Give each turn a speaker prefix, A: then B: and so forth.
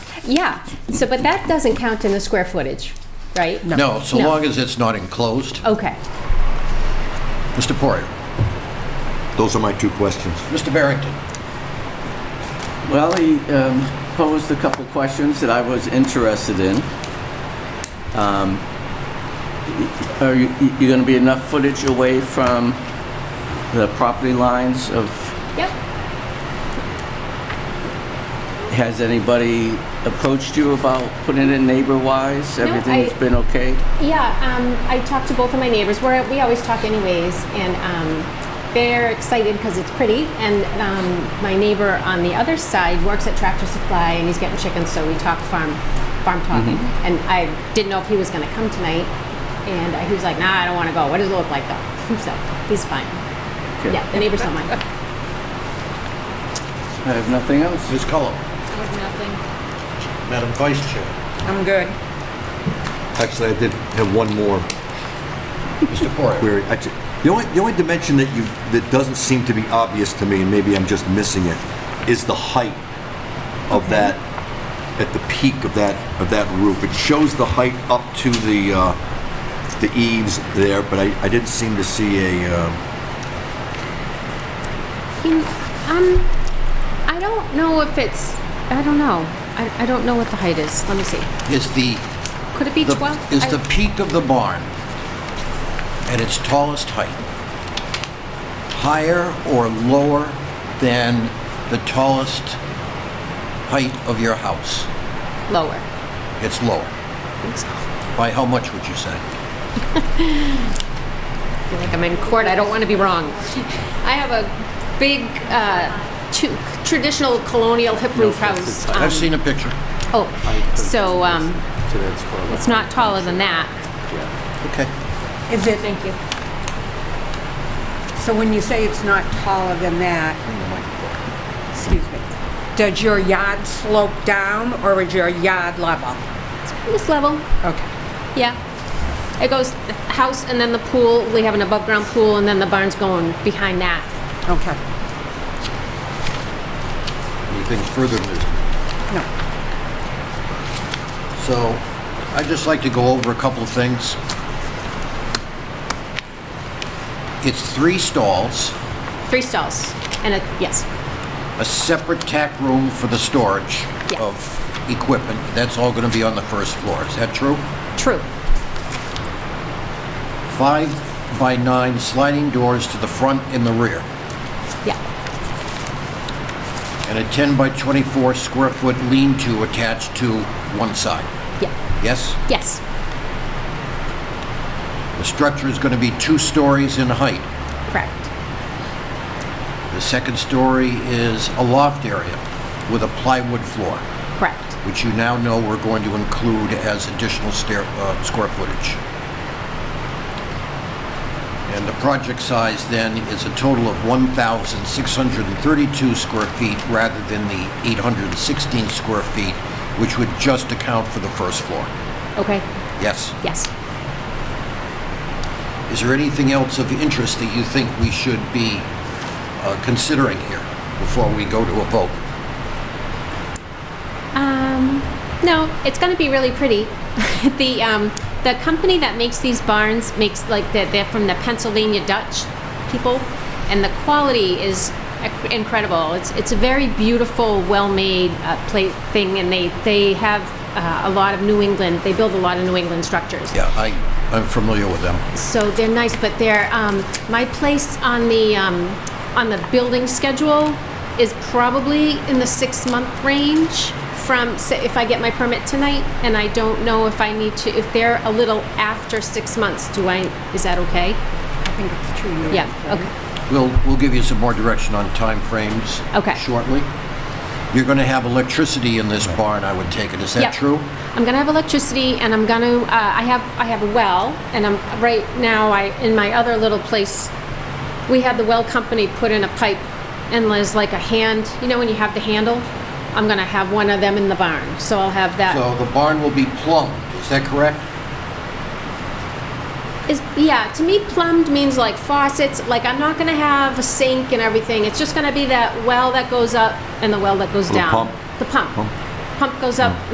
A: Yeah, so, but that doesn't count in the square footage, right?
B: No, so
A: No.
B: long as it's not enclosed.
A: Okay.
B: Mr. Poirier,
C: Those are my two questions.
B: Mr. Barrington.
D: Well, he um, posed a couple questions that I was interested in. Um, Are you, you gonna be enough footage away from the property lines of,
A: Yep.
D: has anybody approached you about putting it neighbor-wise?
A: No,
D: Everything's
A: I-
D: been okay?
A: Yeah, um, I talked to both of my neighbors. We're, we always talk anyways, and um, they're excited because it's pretty. And um, my neighbor on the other side works at Tractor Supply, and he's getting chickens, so we talk farm farm talking.
B: Mm-hmm.
A: And I didn't know if he was going to come tonight, and he was like, "Nah, I don't want to go. What does it look like though?" so he's fine.
D: Okay.
A: Yeah, the neighbors don't mind.
D: I have nothing else.
B: Ms. Cullum.
E: Nothing.
B: Madam Vice Chair.
E: I'm good.
C: Actually, I did have one more
B: Mr. Poirier.
C: query. Actually, the only, the only dimension that you, that doesn't seem to be obvious to me, and maybe I'm just missing it, is the height of that, at the peak of that, of that roof. It shows the height up to the, uh, the eaves there, but I, I didn't seem to see a, uh,
A: Can, um, I don't know if it's. I don't know. I, I don't know what the height is. Let me see.
B: Is the,
A: Could it be
B: the-
A: 12?
B: is
A: I-
B: the peak of the barn at its tallest height higher or lower than the tallest height of your house?
A: Lower.
B: It's lower.
A: I think so. I
B: By how much would you say?
A: feel like I'm in court. I don't want to be wrong. I have a big, uh, tu- traditional colonial hip roof house. um,
B: I've seen a picture.
A: Oh, so, um, it's not taller than that.
B: Okay.
F: Is it,
E: Thank you.
F: so when you say it's not taller than that, excuse me, does your yard slope down or is your yard level?
A: This level,
F: Okay,
A: yeah. It goes the house and then the pool. We have an above-ground pool and then the barn's going behind that.
F: okay.
B: Anything further, Ms.
F: No.
B: So I'd just like to go over a couple of things. It's three stalls,
A: Three stalls and a, yes,
B: a separate tack room for the storage
A: Yeah.
B: of equipment. That's all going to be on the first floor. Is that true?
A: true.
B: Five by nine sliding doors to the front and the rear,
A: Yeah,
B: and a 10 by 24 square foot lean-to attached to one side.
A: yeah,
B: Yes?
A: yes,
B: The structure is going to be two stories in height.
A: correct.
B: The second story is a loft area with a plywood floor,
A: Correct.
B: which you now know we're going to include as additional stair, uh, square footage. And the project size then is a total of 1,632 square feet rather than the 816 square feet, which would just account for the first floor.
A: Okay,
B: Yes?
A: yes.
B: Is there anything else of interest that you think we should be uh, considering here before we go to a vote?
A: Um, no, it's going to be really pretty. the um, the company that makes these barns makes like they're, they're from the Pennsylvania Dutch people, and the quality is ec- incredible. It's it's a very beautiful, well-made uh, plate thing, and they they have uh, a lot of New England. They build a lot of New England structures.
B: Yeah, I, I'm familiar with them.
A: So they're nice, but they're, um, my place on the, um, on the building schedule is probably in the six-month range from, so if I get my permit tonight, and I don't know if I need to, if they're a little after six months, do I, is that okay?
F: I think it's two units.
A: Yeah,
F: right?
A: okay,
B: We'll, we'll give you some more direction on timeframes
A: Okay.
B: shortly. You're going to have electricity in this barn, I would take it. Is that
A: Yep.
B: true?
A: I'm gonna have electricity, and I'm gonna, uh, I have, I have a well, and I'm, right now, I, in my other little place, we had the well company put in a pipe and there's like a hand, you know when you have the handle? I'm gonna have one of them in the barn, so I'll have that.
B: So the barn will be plumbed, is that correct?
A: Is, yeah, to me plumbed means like faucets, like I'm not gonna have a sink and everything, it's just gonna be that well that goes up and the well that goes
C: The
A: down.
C: pump.
A: The pump.
C: Pump.
A: pump goes up